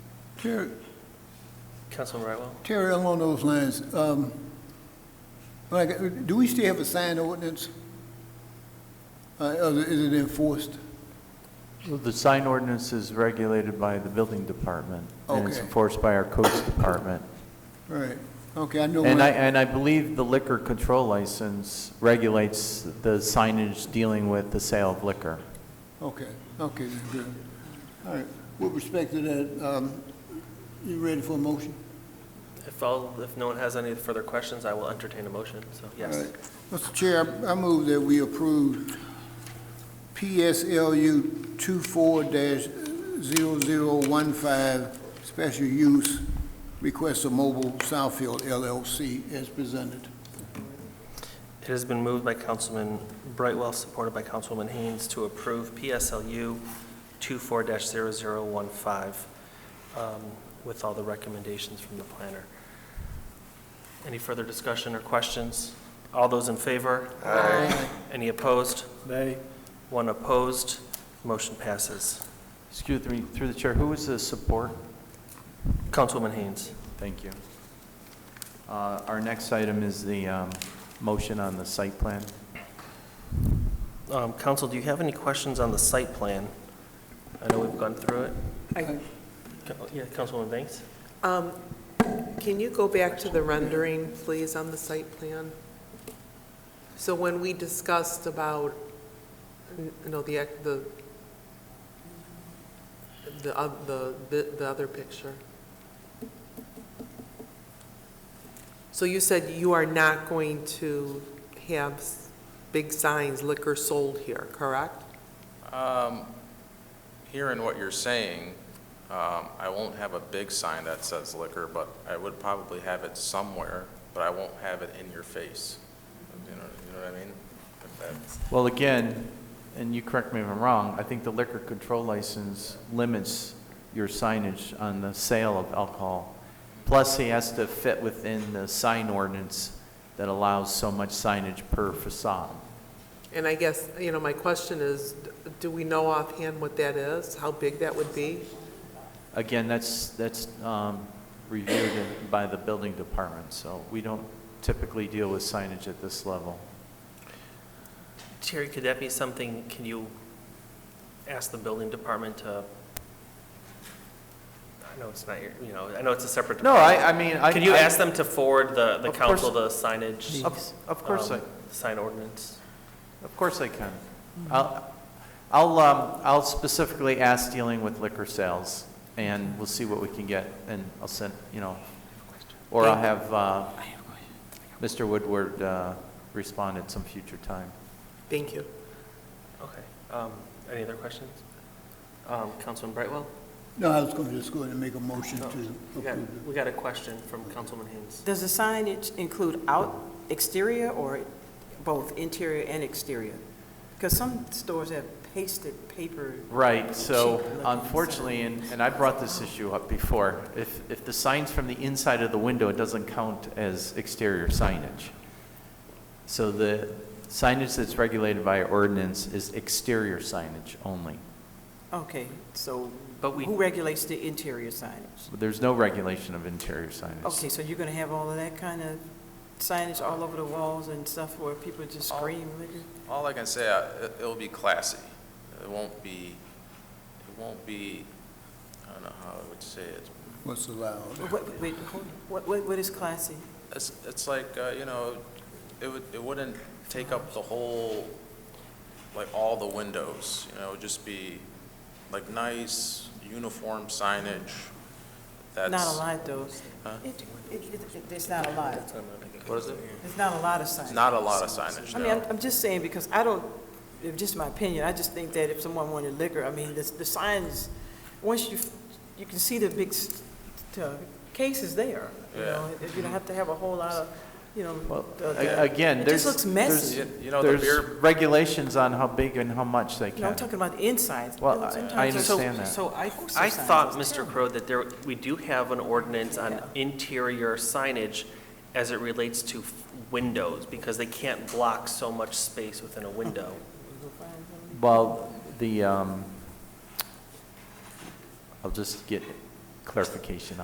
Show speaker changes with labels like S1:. S1: Terry,
S2: Councilman Brightwell?
S1: Terry, along those lines, um, like, do we still have a sign ordinance? Uh, is it- is it enforced?
S3: Well, The sign ordinance is regulated by the building department, and it's
S1: Okay.
S3: enforced by our codes department.
S1: Right, okay, I know.
S3: And
S1: my-
S3: I, and I believe the liquor control license regulates the signage dealing with the sale of liquor.
S1: Okay, okay, then, good. All right, with respect to that, um, you ready for a motion?
S2: If all, if no one has any further questions, I will entertain a motion, so,
S1: All
S2: yes.
S1: right. Mr. Chair, I I move that we approve PSLU 24-0015, special use request of Mobile Southfield LLC as presented.
S2: It has been moved by Councilman Brightwell, supported by Councilwoman Haynes, to approve PSLU 24-0015 um, with all the recommendations from the planner. Any further discussion or questions? All those in favor? Aye. Any opposed? Nay. One opposed. Motion passes.
S3: Excuse me, through the chair, who was the support?
S2: Councilwoman Haynes.
S3: Thank you. Uh, Our next item is the um, motion on the site plan.
S2: Um, Council, do you have any questions on the site plan? I know we've gone through it.
S4: I-
S2: Co- Yeah, Councilwoman Banks?
S4: um, Can you go back to the rendering, please, on the site plan? So when we discussed about, you know, the, ec- the, the, oth- the, the- the other picture. So you said you are not going to have s- big signs liquor sold here, correct?
S5: Um, Hearing what you're saying, um, I won't have a big sign that says liquor, but I would probably have it somewhere, but I won't have it in your face. You know, you know what I mean? If that-
S3: Well, again, and you correct me if I'm wrong, I think the liquor control license limits your signage on the sale of alcohol. Plus, he has to fit within the sign ordinance that allows so much signage per facade.
S4: And I guess, you know, my question is, do we know offhand what that is, how big that would be?
S3: Again, that's, that's um, reviewed in- by the building department, so we don't typically deal with signage at this level.
S2: Terry, could that be something, can you ask the building department to, I know it's not your, you know, I know it's a separate
S3: No,
S2: department.
S3: I, I mean, I.
S2: Can you
S3: I-
S2: ask them to forward the, the
S3: Of course.
S2: council the signage?
S3: Of of course I.
S2: um, Sign ordinance?
S3: Of course I can. I'll, I'll, um, I'll specifically ask dealing with liquor sales, and we'll see what we can get, and I'll send, you know, or I'll have, uh, Mr. Woodward, uh, respond at some future time.
S4: Thank you.
S2: Okay. Um, Any other questions? Um, Councilman Brightwell?
S1: No, I was going to just go ahead and make a motion to
S2: No, We
S1: approve
S2: got,
S1: it.
S2: we got a question from Councilman Haynes.
S6: Does the signage include out, exterior, or both interior and exterior? Because some stores have pasted paper.
S3: Right, so
S6: Cheap looking
S3: unfortunately, and, and I brought this issue up before, if, if the sign's from the inside of the window, it doesn't count as exterior signage. So the signage that's regulated by ordinance is exterior signage only.
S6: Okay, so
S2: But we-
S6: who regulates the interior signage?
S3: There's no regulation of interior signage.
S6: Okay, so you're going to have all of that kind of signage all over the walls and stuff where people just
S5: All-
S6: scream? liquor?
S5: All I can say, uh, it- it'll be classy. It won't be, it won't be, I don't know how I would say it.
S1: What's allowed?
S6: What- Wait, hold on. What- what, what is classy?
S5: It's, it's like, uh, you know, it would, it wouldn't take up the whole, like, all the windows, you know, it would just be like nice, uniform signage.
S6: Not
S5: That's-
S6: a lot, though.
S5: Huh?
S6: It, it, it- it's not a lot.
S5: What is it?
S6: There's not a lot of signage.
S5: Not a lot of signage,
S6: I mean, I'm-
S5: no.
S6: I'm just saying, because I don't, if just my opinion, I just think that if someone wanted liquor, I mean, the, the signs, once you, you can see the big s- t- uh, cases there, you know, if you don't have to have a whole lot of, you know.
S3: Well,
S6: the-
S3: a- again,
S6: It
S3: there's-
S6: just looks
S3: there's-
S6: messy.
S5: You you know, the
S3: There's
S5: beer,
S3: regulations on how big and how much they
S6: You know, I'm
S3: can.
S6: talking about the insides.
S3: Well,
S6: You know,
S3: I- I
S6: sometimes- so-
S3: understand that.
S6: So I. poster
S2: I
S6: signs
S2: thought,
S6: is
S2: Mr.
S6: terrible.
S2: Crow, that there, we do have an ordinance on
S6: Yeah.
S2: interior signage as it relates to f- windows, because they can't block so much space within a window.
S3: Well, the, um, I'll just get clarification